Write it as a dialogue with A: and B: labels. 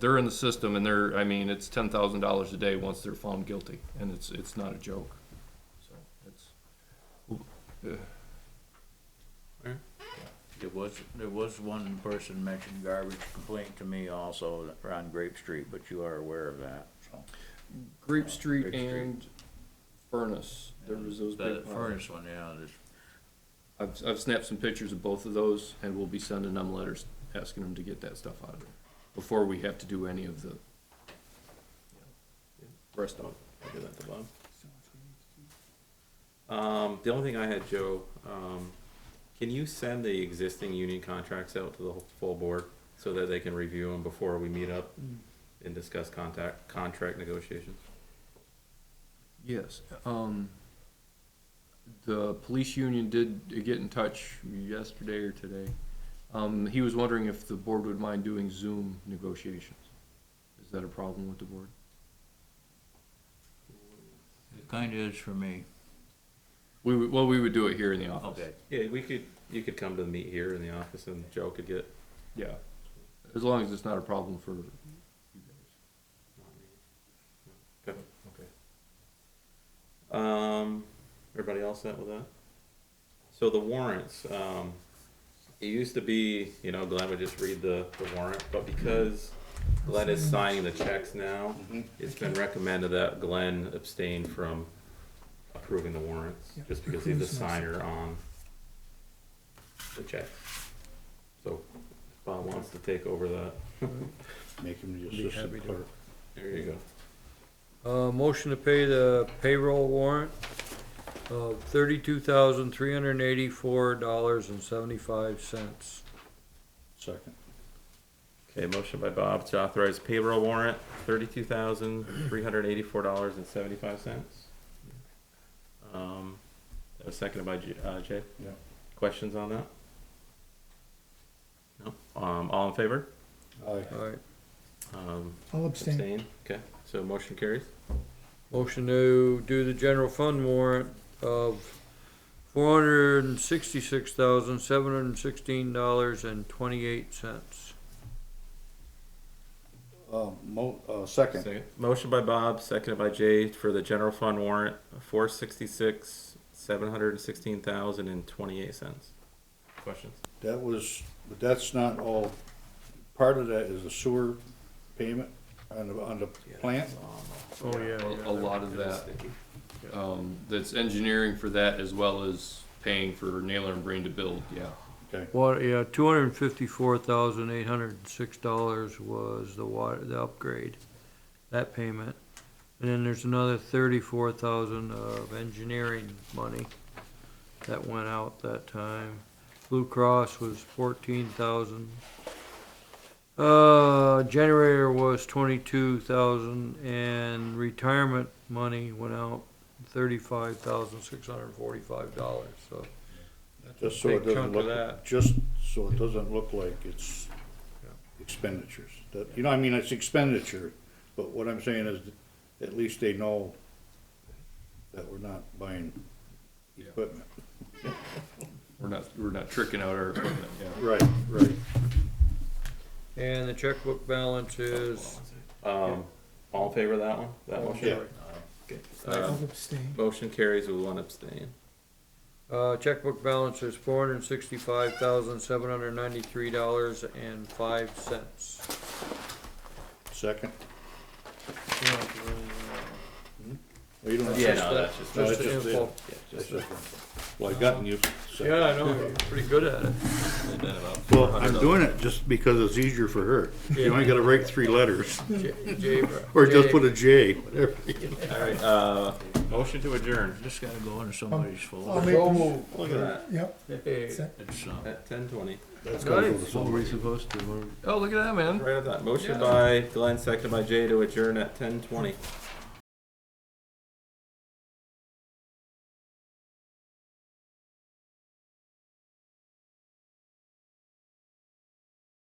A: they're in the system and they're, I mean, it's ten thousand dollars a day once they're found guilty, and it's, it's not a joke. So it's, uh,
B: There was, there was one person mentioned garbage complaint to me also on Grape Street, but you are aware of that, so.
A: Grape Street
B: Grape Street.
A: and Furnace, there was those
B: The
A: big piles.
B: furnace one, yeah, there's,
A: I've, I've snapped some pictures of both of those, and we'll be sending them letters, asking them to get that stuff out of there, before we have to do any of the
C: First off, I'll do that to Bob. Um, the only thing I had, Joe, um, can you send the existing union contracts out to the whole- full board so that they can review them before we meet up and discuss contact, contract negotiations?
A: Yes, um, the police union did get in touch yesterday or today. Um, he was wondering if the board would mind doing Zoom negotiations. Is that a problem with the board?
B: it kinda is for me.
A: We would, well, we would do it here in the office.
B: Okay,
C: Yeah, we could, you could come to the meet here in the office and Joe could get.
A: Yeah, as long as it's not a problem for you guys.
C: Okay. Um, everybody else set with that? So the warrants, um, it used to be, you know, Glenn would just read the, the warrant, but because Glenn is signing the checks now, it's been recommended that Glenn abstain from approving the warrants,
D: Yeah,
C: just because he's the
D: approves and
C: signer on the checks. So if Bob wants to take over that.
E: Make him
D: Be
E: the
D: happy
E: assistant
D: to.
E: clerk.
C: There you go.
D: Uh, motion to pay the payroll warrant of thirty-two thousand, three hundred and eighty-four dollars and seventy-five cents.
E: Second.
C: Okay, motion by Bob to authorize payroll warrant, thirty-two thousand, three hundred eighty-four dollars and seventy-five cents. Um, that was seconded by J- uh, Jay.
E: Yeah.
C: Questions on that? No, um, all in favor?
E: Aye.
D: Alright,
C: Um,
F: I'll abstain.
C: abstain, okay, so motion carries.
D: motion to do the general fund warrant of four hundred and sixty-six thousand, seven hundred and sixteen dollars and twenty-eight cents.
E: Uh, mo, uh, second.
C: Second. Motion by Bob, seconded by Jay for the general fund warrant, four sixty-six, seven hundred and sixteen thousand and twenty-eight cents. Questions?
E: That was, but that's not all, part of that is the sewer payment on the, on the plant.
D: Oh, yeah.
A: A- A lot of that, um, that's engineering for that as well as paying for Naylor and Breen to build, yeah.
E: Okay,
D: Water, yeah, two hundred and fifty-four thousand, eight hundred and six dollars was the water, the upgrade, that payment. And then there's another thirty-four thousand of engineering money that went out that time. Blue Cross was fourteen thousand. Uh, generator was twenty-two thousand and retirement money went out thirty-five thousand, six hundred and forty-five dollars, so.
E: just so it
D: Big chunk
E: doesn't
D: of
E: look,
D: that.
E: just so it doesn't look like it's expenditures. That, you know, I mean, it's expenditure, but what I'm saying is, at least they know that we're not buying
A: Yeah.
E: equipment.
A: We're not, we're not tricking out our equipment, yeah.
E: Right, right.
D: And the checkbook balance is
C: Um, all in favor of that one, that motion?
E: Yeah.
C: Uh,
F: I'll abstain.
C: Motion carries with one abstain.
D: Uh, checkbook balance is four hundred and sixty-five thousand, seven hundred and ninety-three dollars and five cents.
E: Second. Well, you don't have to-
C: Yeah, no, that's just-
E: No,
D: Just
E: it's
D: the
E: just
D: info.
E: That's just- Well, I gotten you. so-
D: Yeah, I know, you're pretty good at it.
C: And then about
E: Well, I'm doing it just because it's easier for her. You only gotta write three letters,
D: J- Jay-
E: or just
D: Jay-
E: put a J, whatever.
C: All right, uh, motion to adjourn.
B: just gotta go into somebody's
F: I'll
B: folder,
F: make, the-
E: Look at that.
F: yep,
D: Hey,
F: sec-
B: it's, uh,
C: At ten twenty.
E: That's gotta go to
D: Nice.
A: What were we
E: somebody.
A: supposed to, oh, look at that, man.
C: Right at that. Motion by Glenn, seconded by Jay to adjourn at ten twenty.